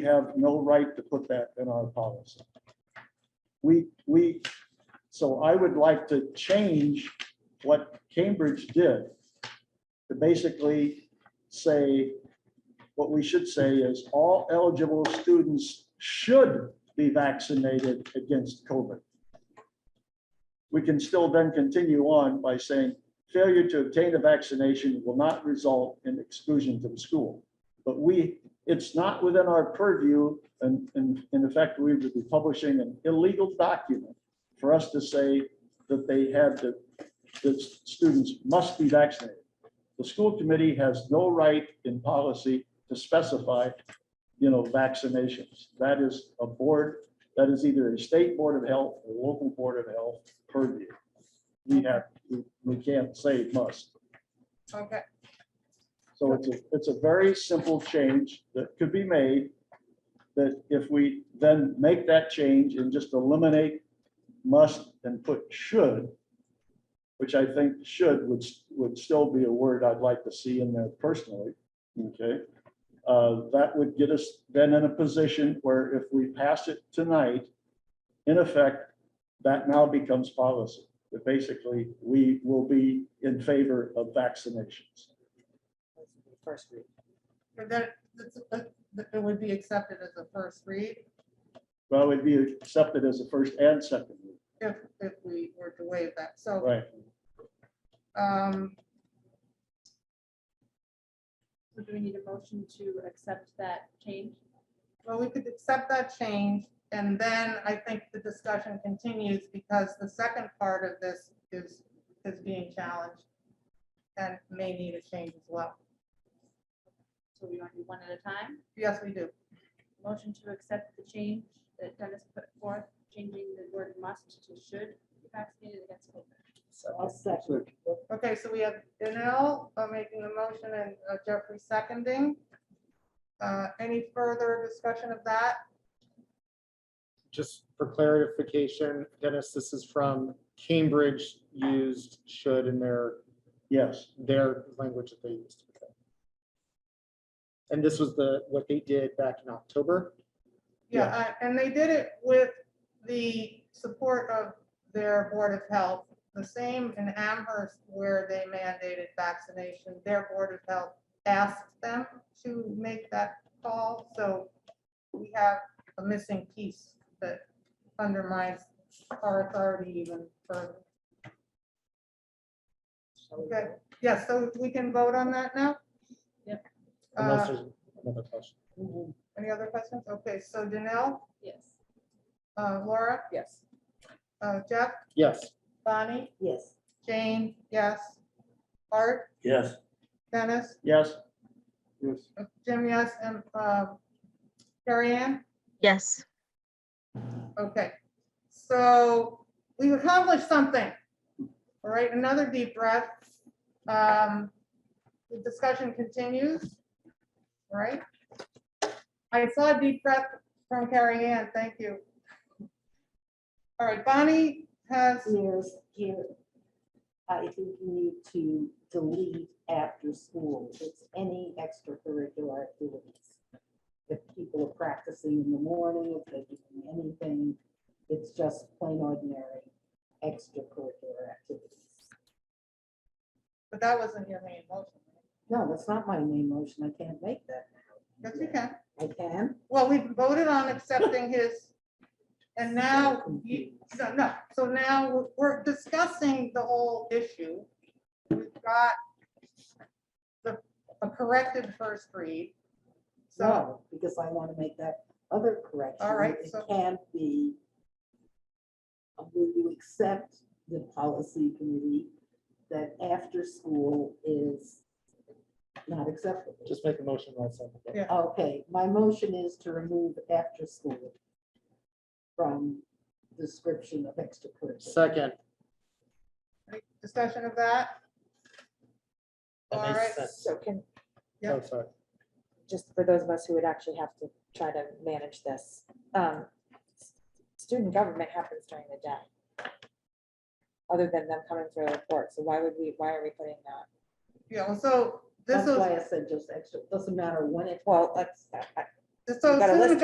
We have no right to put that in our policy. We, we, so I would like to change what Cambridge did to basically say, what we should say is all eligible students should be vaccinated against COVID. We can still then continue on by saying failure to obtain a vaccination will not result in exclusion from school. But we, it's not within our purview, and, and in effect, we would be publishing an illegal document for us to say that they had to, that students must be vaccinated. The school committee has no right in policy to specify, you know, vaccinations. That is a board, that is either a state board of health or local board of health purview. We have, we- we can't say must. Okay, So it's a, it's a very simple change that could be made. That if we then make that change and just eliminate must and put should, which I think should would, would still be a word I'd like to see in there personally, okay? Uh, That would get us then in a position where if we pass it tonight, in effect, that now becomes policy. That basically, we will be in favor of vaccinations. First read. but that, that's- that- that it would be accepted as a first read Well, it'd be accepted as a first and second read, if, if we were to waive that, so, right? um, So Do we need a motion to accept that change? well, we could accept that change, and then I think the discussion continues, because the second part of this is, is being challenged and may need a change as well. So we want to do one at a time? Yes, we do. Motion to accept the change that Dennis put forth, changing the word must to should be vaccinated against COVID. I'll second. Okay, so we have Danil uh, making the motion and uh, Jeffrey seconding. Uh, Any further discussion of that? just for clarification, Dennis, this is from Cambridge used should in their, Yes, their language that they used. And this was the, what they did back in October. Yeah, uh, and they did it with the support of their Board of Health, the same in Amherst where they mandated vaccination. Their Board of Health asked them to make that call, so we have a missing piece that undermines our authority even further. Okay, yeah, so we can vote on that now? Yep. Unless Uh, there's another question. Any other questions? Okay, so Danil, Yes. uh, Laura, Yes. uh, Jeff, Yes, Bonnie, Yes. Jane, yes. Art? Yes. Dennis, Uh, yes, Jim, yes, and uh, Carrie Ann? Yes, Okay, so we accomplished something. All right, another deep breath. Um, The discussion continues, All right? I saw a deep breath from Carrie Ann, thank you. All right, Bonnie has, Yes, here. I think you need to delete after school. It's any extracurricular activities. If people are practicing in the morning, if they're doing anything, it's just plain ordinary extracurricular activities. but that wasn't your main motion. No, that's not my main motion. I can't make that. Yes, you can. I can. Well, we voted on accepting his, and now, you, no, no, so now we're- we're discussing the whole issue. We've got the, a corrected first read. So, No, because I want to make that other correction. All right, It so- can be, uh, will you accept the policy committee that after school is not acceptable? just make a motion one second. Yeah. Okay, my motion is to remove after school from description of extracurricular. Second. any discussion of that? That makes All right. sense. So can, Yeah. Oh, sorry. just for those of us who would actually have to try to manage this, um, s- student government happens during the day. Other than them coming through the report, so why would we, why are we putting that? Yeah, well, so this That's why I was, said just extra, doesn't matter when it. Well, that's, I- I- So You've got a student list